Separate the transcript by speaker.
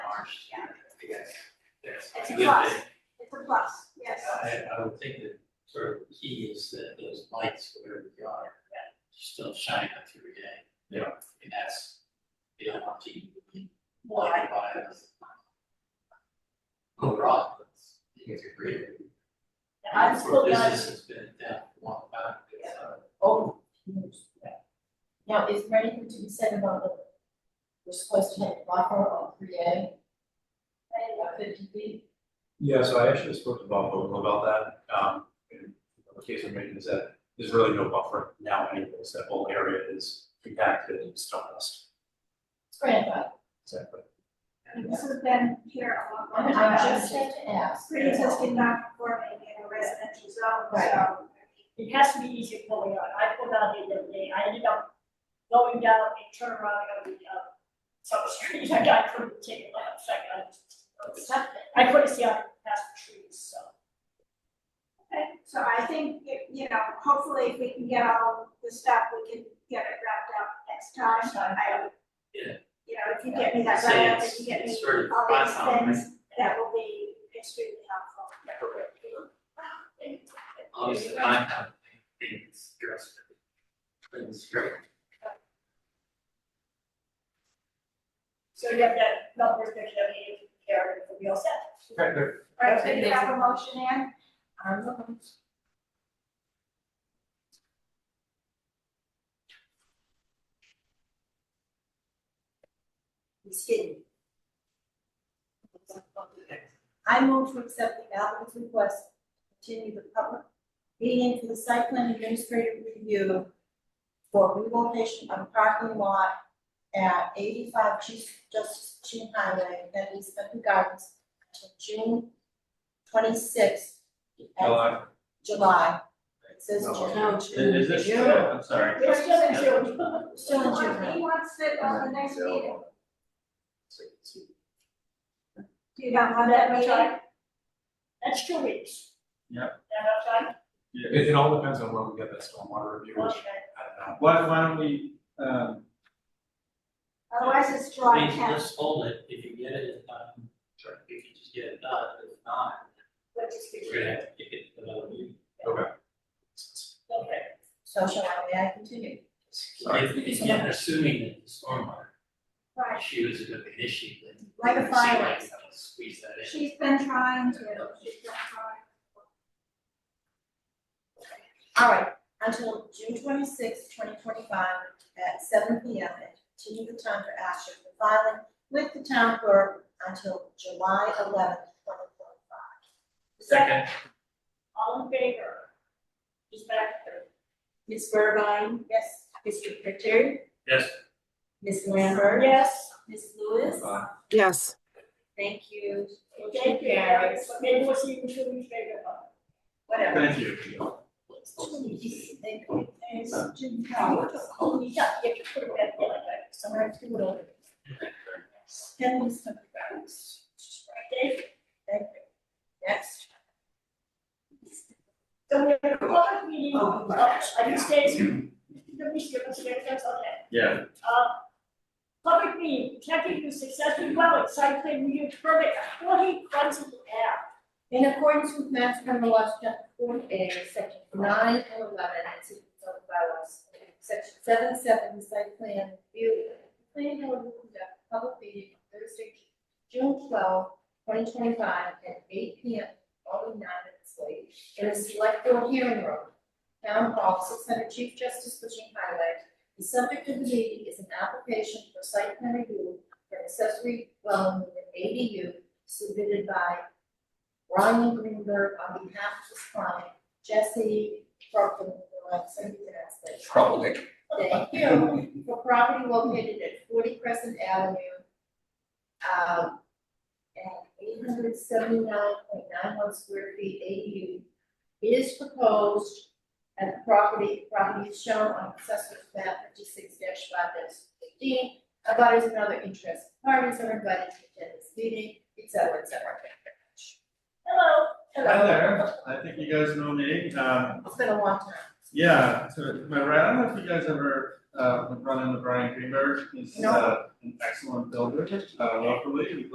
Speaker 1: Yeah.
Speaker 2: I guess. That's.
Speaker 1: It's a
Speaker 2: I get
Speaker 1: plus.
Speaker 2: that.
Speaker 1: It's a plus, yes.
Speaker 2: I, I would think that sort of key is that those lights, whatever they are, that still shine up every day.
Speaker 3: Yeah.
Speaker 2: And that's, you don't want to be
Speaker 1: Why?
Speaker 2: blinded by those. Overall, it's, it's a great.
Speaker 1: I'm still not,
Speaker 2: Business has been down for a long time. it's, uh,
Speaker 4: Oh, yes. Now, is there anything to be said about the, we're supposed to have a buffer on three A, about fifty feet?
Speaker 3: Yeah, so I actually spoke to Bob Vogel about that, um, and the case I'm making is that there's really no buffer now anyways, that whole area is compacted and stone dust.
Speaker 4: It's grandfathered.
Speaker 3: Exactly.
Speaker 1: this has been here a long,
Speaker 4: I
Speaker 1: long
Speaker 4: mean,
Speaker 1: time.
Speaker 4: I just have to ask.
Speaker 1: pre-existing non-conforming in a residential zone, so.
Speaker 4: Right.
Speaker 1: I mean,
Speaker 5: It has to be easy pulling out. I pulled out the other day. I ended up going down and turned around and going up some street. Like I couldn't take it left. Like I just, I couldn't see out past the trees, so.
Speaker 1: Okay, so I think, if, you know, hopefully if we can get all the stuff, we can get it wrapped up next time, I.
Speaker 2: Yeah.
Speaker 1: You know, if you get me that
Speaker 2: Say
Speaker 1: right up,
Speaker 2: it's,
Speaker 1: if you get me
Speaker 2: it's sort of
Speaker 1: all these
Speaker 2: fun, right?
Speaker 1: things, that will be extremely helpful.
Speaker 2: Obviously, I have things dressed. Things dressed.
Speaker 5: So you have that number picture of me, Karen, and we all set.
Speaker 3: Okay, good.
Speaker 1: Right, so you have a motion in,
Speaker 4: I'm looking. He's hidden. I move to accept the applicant's request, to continue the public meeting for the site plan administrative review for relocation of parking lot at eighty-five Chief Justice Chin Highway, that is Benton Gardens, until June twenty-sixth.
Speaker 3: Hello,
Speaker 4: July. It says
Speaker 3: No.
Speaker 4: June.
Speaker 3: is this, I'm sorry.
Speaker 5: We're still in June.
Speaker 4: Still
Speaker 1: he
Speaker 4: in
Speaker 1: wants,
Speaker 4: June.
Speaker 1: he wants it on the next meeting, do you not want that
Speaker 5: That much
Speaker 1: meeting?
Speaker 5: time. That's two weeks.
Speaker 3: Yeah.
Speaker 5: That much
Speaker 3: It, it all depends on when we get that stormwater review,
Speaker 5: time?
Speaker 3: which
Speaker 5: Okay.
Speaker 3: I don't know.
Speaker 6: Why, why don't we, um,
Speaker 1: Otherwise, it's July
Speaker 2: Please,
Speaker 1: tenth,
Speaker 2: Let's hold it, if you get it, um, sorry, if you just get it done, if not,
Speaker 5: Let's just get
Speaker 2: we're gonna have to kick it to another meeting.
Speaker 5: Okay.
Speaker 4: So shall I, may I continue?
Speaker 3: Sorry.
Speaker 2: If, if you're assuming that the stormwater
Speaker 1: right,
Speaker 2: issue is gonna be an issue, then.
Speaker 1: Like a
Speaker 2: it seems
Speaker 1: fire.
Speaker 2: like we can Squeeze that in.
Speaker 1: she's been trying to, she's been trying.
Speaker 4: All right, until June twenty-sixth, twenty twenty-five, at seven P M, and continue the time for action for filing with the town clerk until July eleventh, twenty twenty-five.
Speaker 5: Second. All in favor? Is that
Speaker 7: Ms. Burbine,
Speaker 4: Yes,
Speaker 7: Mr. Pritchard,
Speaker 3: Yes.
Speaker 7: Ms. Lambert,
Speaker 5: Yes.
Speaker 7: Ms. Lewis.
Speaker 3: Bye.
Speaker 8: Yes.
Speaker 7: Thank you.
Speaker 5: Thank you, Eric. Maybe we'll see you in two weeks later.
Speaker 4: whatever.
Speaker 3: Thank you.
Speaker 4: They-
Speaker 5: And Jim Howard, oh, yeah, you have to put it back there like that. So I have to do it over.
Speaker 4: Then we start the grounds.
Speaker 5: Right, Dave?
Speaker 4: Thank you. Next.
Speaker 5: So we have a lot of meetings,
Speaker 7: Oh,
Speaker 5: uh, I just say, the meeting, that's okay.
Speaker 3: Yeah,
Speaker 5: Uh, Public meeting, protecting the successful dwelling, site plan review permit, forty Quonset Ave.
Speaker 4: In accordance with Mass General Laws, Chapter forty A, Section nine and eleven, and City Code bylaws, Section seven seven, site plan review. the Planning board will conduct a public meeting on Thursday, June 12, 2025, at eight P M, following nine minutes late, in the select board hearing room, Town Hall, six hundred Chief Justice Cushing Highway. The subject of the meeting is an application for site plan review for an accessory dwelling with an ADU submitted by Ryan Greenberg on behalf of his client, Jesse Crockin, somebody pronounce that.
Speaker 3: Probably.
Speaker 4: Thank you, for property located at forty Crescent Avenue. Um, at eight hundred seventy-nine point nine one square feet ADU is proposed. at the property, property is shown on assessor's map fifty-six five fifteen. About is another interest, parties are invited to attend this meeting, et cetera, et cetera. Thank you very much.
Speaker 5: Hello.
Speaker 6: hi there, I think you guys know me, um,
Speaker 4: It's been a long time.
Speaker 6: yeah, so am I right, I don't know if you guys ever, uh, run into Brian Greenberg, he's,
Speaker 4: No.
Speaker 6: uh, an excellent builder, uh, locally,